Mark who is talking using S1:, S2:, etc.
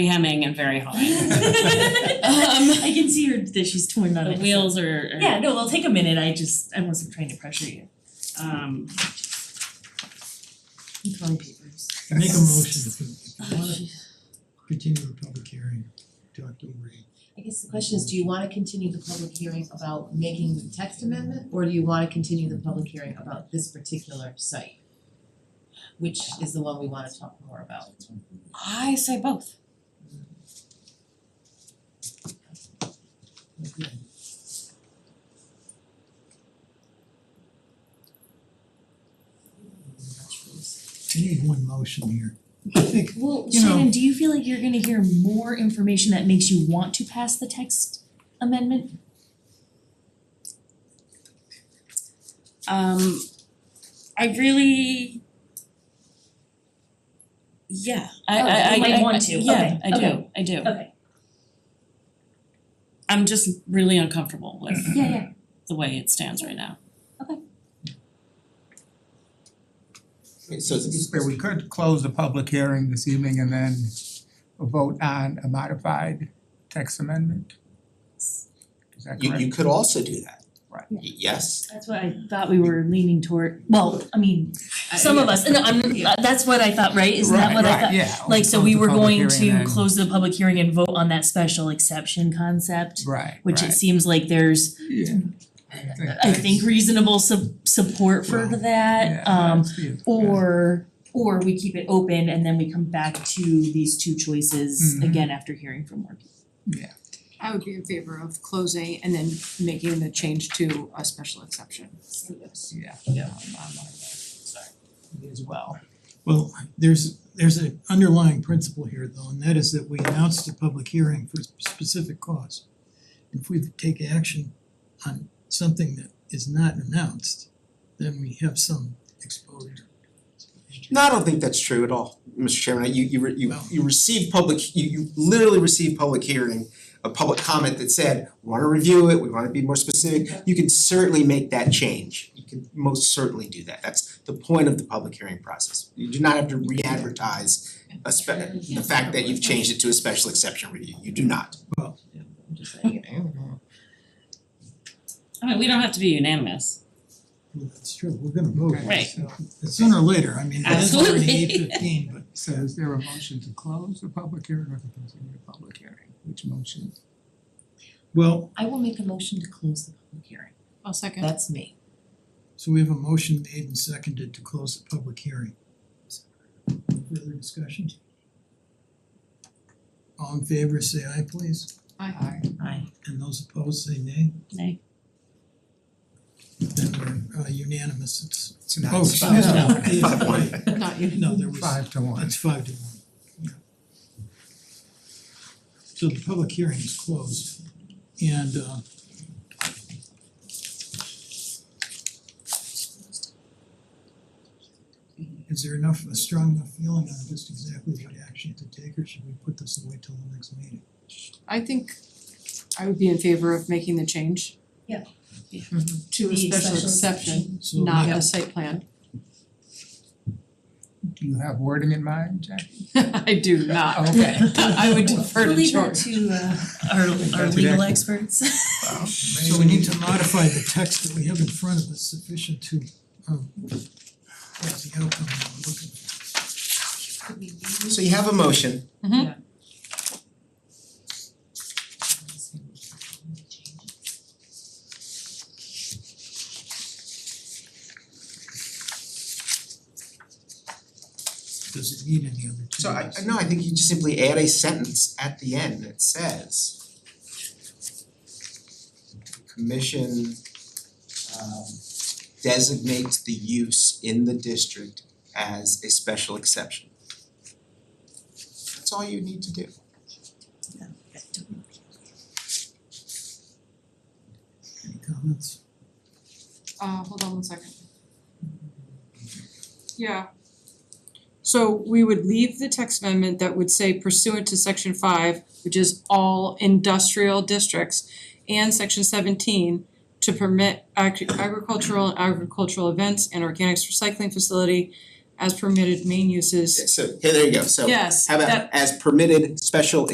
S1: hemming and very hawing.
S2: Um, I can see her that she's torn on
S1: The
S2: it.
S1: wheels are are-
S2: Yeah, no, it'll take a minute, I just, I wasn't trying to pressure you. Um. I'm throwing papers.
S3: I make a motion if you
S2: Oh,
S3: if you wanna continue the public hearing to October eighth.
S4: I guess the question is, do you wanna continue the public hearing about making the text amendment? Or do you wanna continue the public hearing about this particular site? Which is the one we wanna talk more about.
S1: I say both.
S4: Okay.
S3: You need one motion here.
S2: Well,
S3: You know-
S2: Shannon, do you feel like you're gonna hear more information that makes you want to pass the text amendment?
S1: Um I really yeah, I
S2: Oh,
S1: I I
S2: you might
S1: I-
S2: want
S1: I-
S2: to.
S1: Yeah,
S2: Okay,
S1: I do,
S2: okay.
S1: I do.
S2: Okay.
S1: I'm just really uncomfortable with
S2: Yeah, yeah.
S1: the way it stands right now.
S5: So it's
S6: Where we could close the public hearing this evening and then vote on a modified text amendment? Is that
S5: you
S6: correct?
S5: you could also do that.
S6: Right.
S5: Y- Yes,
S2: That's what I thought we were leaning toward, well, I mean, some of us, no, I'm, uh, that's what I thought, right? Isn't that what I thought?
S6: Uh, Right, right, yeah.
S2: Like, so we
S6: Close the
S2: were
S6: public
S2: going
S6: hearing
S2: to
S6: and-
S2: close the public hearing and vote on that special exception concept,
S6: Right,
S2: which it
S6: right.
S2: seems like there's,
S6: Yeah.
S2: I think, reasonable sup- support for
S6: Well,
S2: that, um,
S6: or
S2: or or we keep it open and then we come back to these two choices
S6: Mhm.
S2: again after hearing from more people.
S7: I would be in favor of closing and then making the change to a special exception.
S6: Yeah.
S4: Yeah.
S6: As well.
S3: Well, there's there's an underlying principle here though, and that is that we announced a public hearing for a specific cause. If we take action on something that is not announced, then we have some exposure.
S5: no, I don't think that's true at all, Mr. Chairman, you you re- you
S3: No.
S5: you receive public, you you literally receive public hearing, a public comment that said, "We wanna review it, we wanna be more specific, you can certainly make that change. You can most certainly do that, that's the point of the public hearing process, you do not have to re-advertise a spe- the fact that you've changed it to a special exception review, you do not.
S4: I'm just saying, I don't know.
S1: I mean, we don't have to be unanimous.
S3: Well, that's true, we're gonna vote on
S1: Right.
S3: it, so sooner or later, I mean, it's already
S1: Absolutely.
S3: eight fifteen, but
S6: So is there a motion to close the public hearing or to continue the public hearing? Which motion?
S3: Well,
S4: I will make a motion to close the public hearing.
S7: I'll second.
S4: That's me.
S3: so we have a motion made and seconded to close the public hearing. Further discussion? All in favor, say aye please,
S7: Aye.
S4: Aye.
S3: and those opposed say nay.
S2: Nay.
S3: Then we're uh, unanimous, it's,
S5: It's not
S3: oh, excuse me,
S5: about-
S3: Yeah,
S5: one.
S7: Not you.
S3: no, there was,
S6: Five to one.
S3: that's five to one, yeah. So the public hearing is closed, and uh Is there enough, a strong enough feeling on just exactly what action to take, or should we put this away till the next meeting?
S7: I think I would be in favor of making the change. Mm-hmm.
S2: Yeah.
S7: To a
S2: The
S7: special
S2: special
S7: exception,
S3: So
S7: not a site plan.
S6: Do you have wording in mind, Jackie?
S7: I do not.
S6: Okay.
S7: I would defer to
S2: Leave that
S7: George.
S2: to uh our our
S6: That's
S2: legal
S6: exactly-
S2: experts.
S6: Well,
S3: So we need to modify the text that we have in front of us sufficient to um that's the outcome that we're looking for.
S5: So you have a motion,
S3: Does it need any other changes?
S5: So I I- no, I think you just simply add a sentence at the end that says commission um designates the use in the district as a special exception. That's all you need to do.
S3: Any comments?
S7: Uh hold on one second. Yeah. So we would leave the text amendment that would say pursuant to section five, which is all industrial districts and section seventeen to permit ag- agricultural and agricultural events and organics recycling facility as permitted main uses.
S5: So, yeah, there you go, so
S7: Yes,
S5: how
S7: that-
S5: about as permitted special